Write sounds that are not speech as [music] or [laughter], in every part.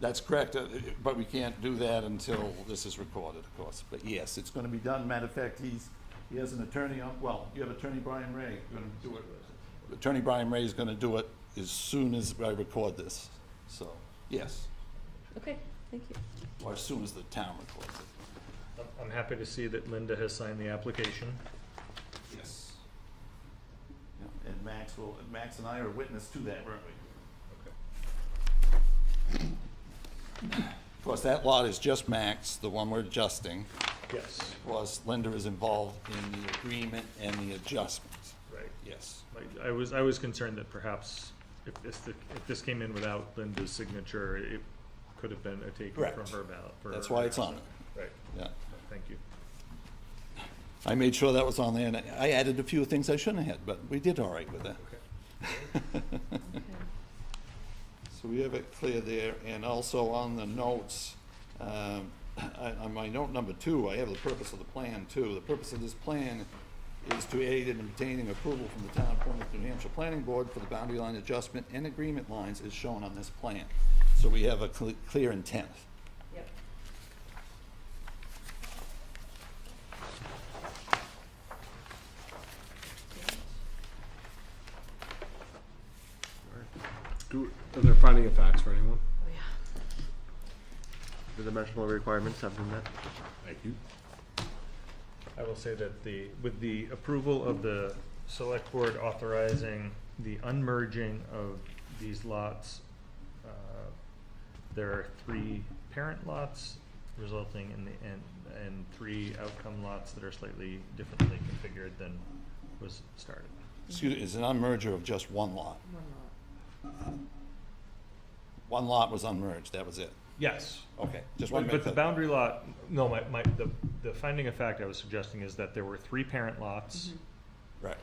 That's correct, uh, but we can't do that until this is recorded, of course. But yes, it's going to be done. Matter of fact, he's, he has an attorney on, well, you have attorney Brian Ray going to do it. Attorney Brian Ray is going to do it as soon as I record this. So, yes, Okay, thank you. or as soon as the town records it. I'm- I'm happy to see that Linda has signed the application. Yes. Yeah, And Max will, Max and I are witness to that, weren't we? Of course, that lot is just Max, the one we're adjusting. Yes, was Linda is involved in the agreement and the adjustments. right. Yes. Like, I was, I was concerned that perhaps if this, if this came in without Linda's signature, it could have been a taken from Correct. her ballot. for That's her- why it's on it. Right, Yeah. thank you. I made sure that was on there, and I added a few things I shouldn't have, but we did all right with that. Okay. [laughs] So we have it clear there, and also on the notes, um, [coughs] I- on my note number two, I have the purpose of the plan too. The purpose of this plan is to aid in obtaining approval from the town of Plymouth, New Hampshire Planning Board for the boundary line adjustment and agreement lines as shown on this plan. So we have a cle- clear intent. Yep. Do, are there finding of facts for anyone? Oh, yeah. The dimensional requirements have been met. Thank you. I will say that the, with the approval of the select board authorizing the unmerging of these lots, uh, there are three parent lots resulting in the, and, and three outcome lots that are slightly differently configured than was started. Excuse, it's an unmerger of just one lot. One lot. One lot was unmerged, that was it. Yes. Okay, just one But but minute. the boundary lot, no, my, my, the, the finding of fact I was suggesting is that there were three parent lots. Right,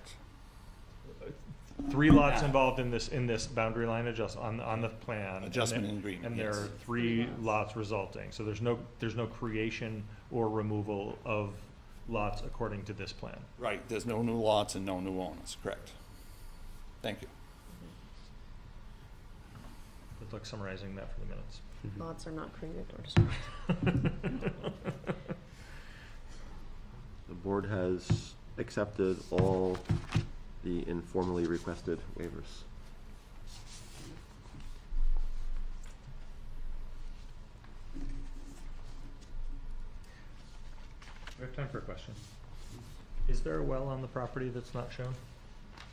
three lots involved in this, in this boundary line adjust, on, on the plan. and Adjustment there- and agreement, And there yes. are three lots resulting, so there's no, there's no creation or removal of lots according to this plan. right, there's no new lots and no new owners, correct. Thank you. Good luck summarizing that for the minutes. Lots are not created or destroyed. The board has accepted all the informally requested waivers. [laughs] We have time for a question. Is there a well on the property that's not shown?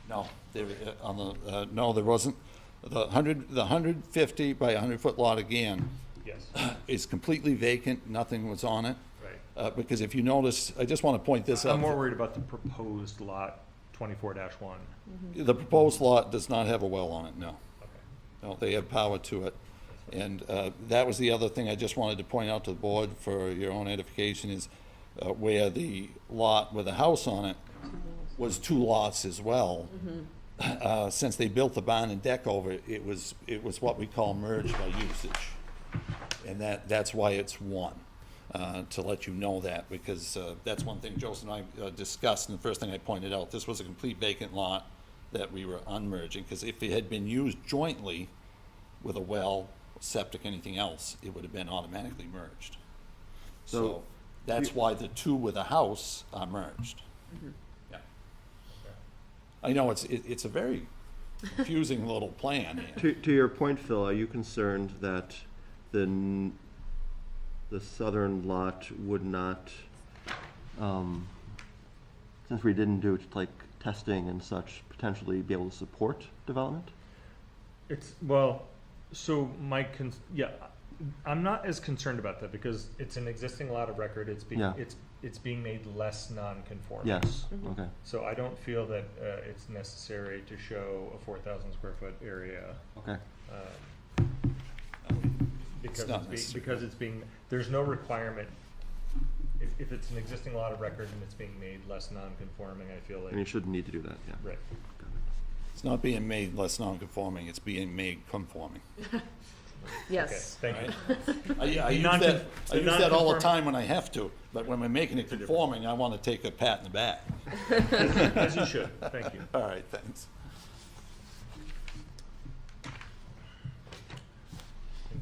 No, there, uh, on the, uh, no, there wasn't. The hundred, the hundred fifty by hundred foot lot again [clears throat] Yes. is completely vacant, nothing was on it. Right. Uh, because if you notice, I just want to point this out. I'm more worried about the proposed lot twenty-four one. The proposed lot does not have a well on it, no. No, they have power to it. And uh, that was the other thing I just wanted to point out to the board for your own edification is uh, where the lot with a house on it was two lots as well. Uh, Since they built the barn and deck over, it, it was, it was what we call merged by usage. And that, that's why it's one, uh, to let you know that, because uh, that's one thing Joseph and I uh, discussed, and the first thing I pointed out, this was a complete vacant lot that we were unmerging, because if it had been used jointly with a well, septic, anything else, it would have been automatically merged. So So- that's why the two with a house are merged. Yeah. I know, it's, it- it's a very confusing little plan here. [laughs] To, to your point, Phil, are you concerned that the, n- the southern lot would not, um, since we didn't do like testing and such, potentially be able to support development? It's, well, so my, con- yeah, I'm not as concerned about that because it's an existing lot of record. It's being, Yeah. it's, it's being made less non-conforming. Yes, okay. So I don't feel that uh, it's necessary to show a 4,000 square foot area. Okay. um, Because not it's being, necessary. because it's being, there's no requirement. If, if it's an existing lot of record and it's being made less non-conforming, I feel And you like, shouldn't need to do that, yeah. right. Got it. It's not being made less non-conforming, it's being made conforming. Okay, Yes. Thank [laughs] you. I, I The use non- that, I the use that all the nonconform- time when I have to, but when we're making it conforming, I want to take a pat in the back. As you should, thank you. All right, thanks.